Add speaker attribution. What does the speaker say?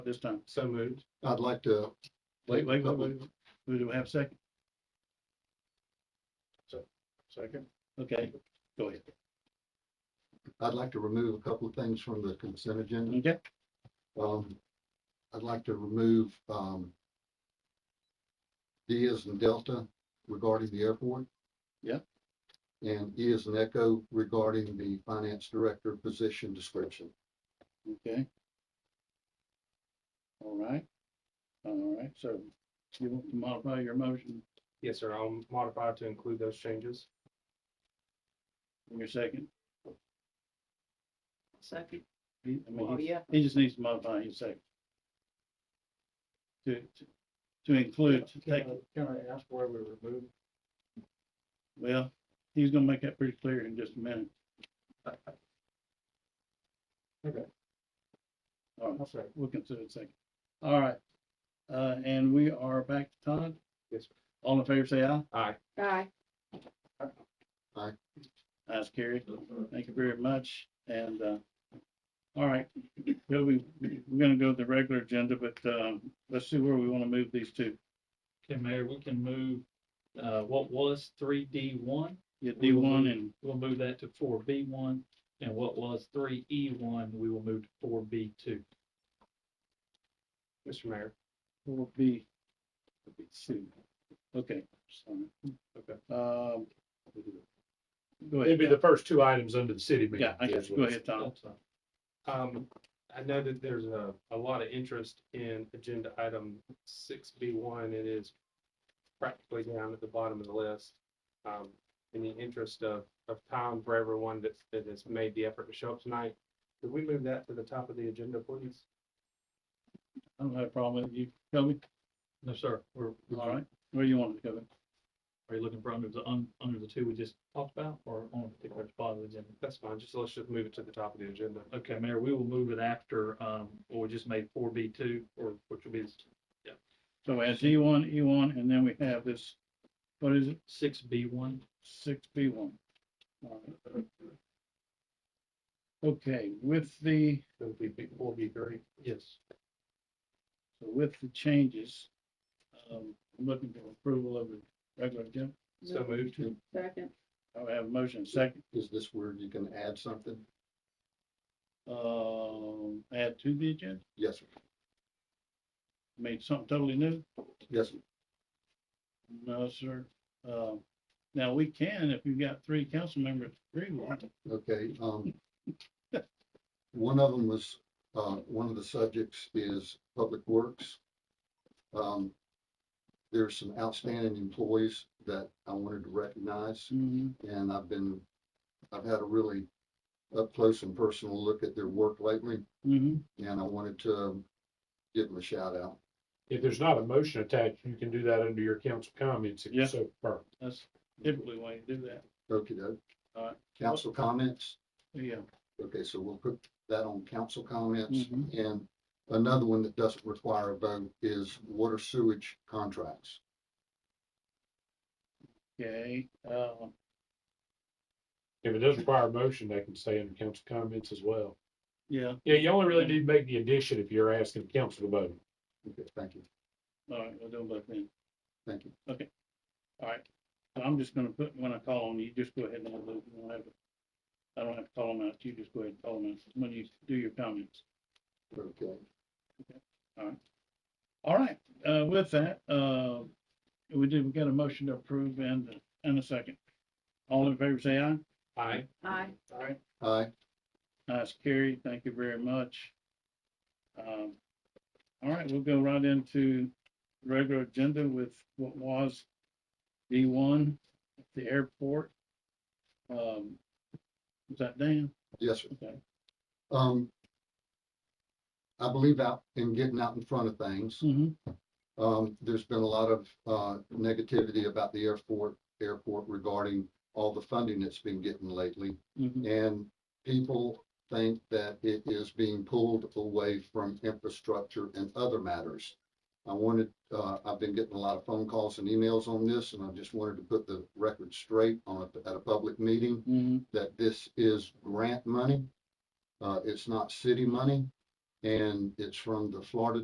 Speaker 1: this time.
Speaker 2: So moved.
Speaker 3: I'd like to,
Speaker 1: Wait, wait, wait, wait. Who do we have second?
Speaker 2: Second.
Speaker 1: Okay, go ahead.
Speaker 3: I'd like to remove a couple of things from the consent agenda.
Speaker 1: Okay,
Speaker 3: Um, I'd like to remove, um, D as in Delta regarding the airport.
Speaker 1: Yeah.
Speaker 3: And E as in Echo regarding the finance director position description.
Speaker 1: okay. All right. All right, so you want to modify your motion
Speaker 2: Yes, sir. I'll modify to include those changes.
Speaker 1: in your second?
Speaker 4: Second,
Speaker 1: He, I mean,
Speaker 4: oh,
Speaker 1: he-
Speaker 4: yeah,
Speaker 1: he just needs to modify his second. To, to, to include, to take,
Speaker 2: can I ask why we removed?
Speaker 1: well, he's gonna make that pretty clear in just a minute.
Speaker 2: Okay.
Speaker 1: All right,
Speaker 2: I'll say.
Speaker 1: we'll consider it second. All right, uh, and we are back to Todd.
Speaker 2: Yes, sir.
Speaker 1: All in favor, say aye.
Speaker 2: Aye.
Speaker 4: aye,
Speaker 1: That's carried. Thank you very much. And, uh, all right, Well, we, we're gonna go to the regular agenda, but, um, let's see where we wanna move these to.
Speaker 5: Okay, Mayor, we can move, uh, what was three D one,
Speaker 1: Get D one and,
Speaker 5: we'll move that to four B one, and what was three E one, we will move to four B two.
Speaker 2: Mr. Mayor.
Speaker 1: Four B. Two. Okay. sorry.
Speaker 2: Okay.
Speaker 1: Um. Go
Speaker 6: It'd be the
Speaker 1: ahead.
Speaker 6: first two items under the city meeting.
Speaker 1: Yeah, I guess, go ahead, Tom.
Speaker 5: That's fine.
Speaker 2: Um, I know that there's a, a lot of interest in agenda item six B one. It is practically down at the bottom of the list. Um, in the interest of, of time for everyone that's, that has made the effort to show up tonight, could we move that to the top of the agenda, please?
Speaker 1: I don't have a problem with you. Tell me.
Speaker 5: No, sir, we're,
Speaker 1: All right. Where you want it to go?
Speaker 5: are you looking for under the, un- under the two we just talked about, or on a particular spot of the agenda?
Speaker 2: That's fine. Just let's just move it to the top of the agenda.
Speaker 5: Okay, Mayor, we will move it after, um, what we just made four B two, or which will be
Speaker 1: So as E one, E one, and then we have this, what is it?
Speaker 5: six B one.
Speaker 1: six B one. Okay, with the,
Speaker 2: It would be B- four B three.
Speaker 5: Yes.
Speaker 1: so with the changes, um, I'm looking for approval of the regular agenda.
Speaker 2: So moved.
Speaker 4: second,
Speaker 1: I have a motion second,
Speaker 3: Is this where you can add something?
Speaker 1: um, add to the agenda,
Speaker 3: Yes, sir.
Speaker 1: made something totally new?
Speaker 3: yes, sir.
Speaker 1: No, sir. Um, now we can, if you've got three council members agree with it.
Speaker 3: Okay, um, one of them was, uh, one of the subjects is Public Works. Um, there's some outstanding employees that I wanted to recognize, and I've been, I've had a really up close and personal look at their work lately,
Speaker 1: Mm-hmm.
Speaker 3: and I wanted to um, give them a shout out.
Speaker 6: If there's not a motion attached, you can do that under your council comments. if you
Speaker 1: Yeah.
Speaker 6: so prefer.
Speaker 1: That's typically why you do that.
Speaker 3: Okay, doke.
Speaker 1: All right.
Speaker 3: Council comments?
Speaker 1: Yeah.
Speaker 3: Okay, so we'll put that on council comments.
Speaker 1: Mhm.
Speaker 3: And another one that doesn't require a vote is water sewage contracts.
Speaker 1: Okay, um,
Speaker 6: If it does require a motion, they can stay under council comments as well.
Speaker 1: yeah,
Speaker 6: Yeah, you only really need to make the addition if you're asking council to vote.
Speaker 3: Okay, thank you,
Speaker 1: all right, we'll do them both then.
Speaker 3: thank you.
Speaker 1: All right, so I'm just gonna put, when I call on you, just go ahead and I'll do, I don't have, I don't have to call them out, you just go ahead and call them out when you do your comments.
Speaker 3: Okay,
Speaker 1: All right, uh, with that, uh, we did, we got a motion to approve and, and a second. All in favor, say aye.
Speaker 2: Aye.
Speaker 4: aye,
Speaker 3: aye,
Speaker 1: Nice carry, thank you very much. Um, all right, we'll go right into regular agenda with what was D one, the airport. Um, was that Dan?
Speaker 3: yes, sir.
Speaker 1: Okay.
Speaker 3: Um, I believe out in getting out in front of things,
Speaker 1: Mhm.
Speaker 3: um, there's been a lot of, uh, negativity about the airport, airport regarding all the funding that's been getting lately.
Speaker 1: Mhm.
Speaker 3: And people think that it is being pulled away from infrastructure and other matters. I wanted, uh, I've been getting a lot of phone calls and emails on this, and I just wanted to put the record straight on, a- at a public meeting,
Speaker 1: Mhm.
Speaker 3: that this is grant money. Uh, it's not city money. And it's from the Florida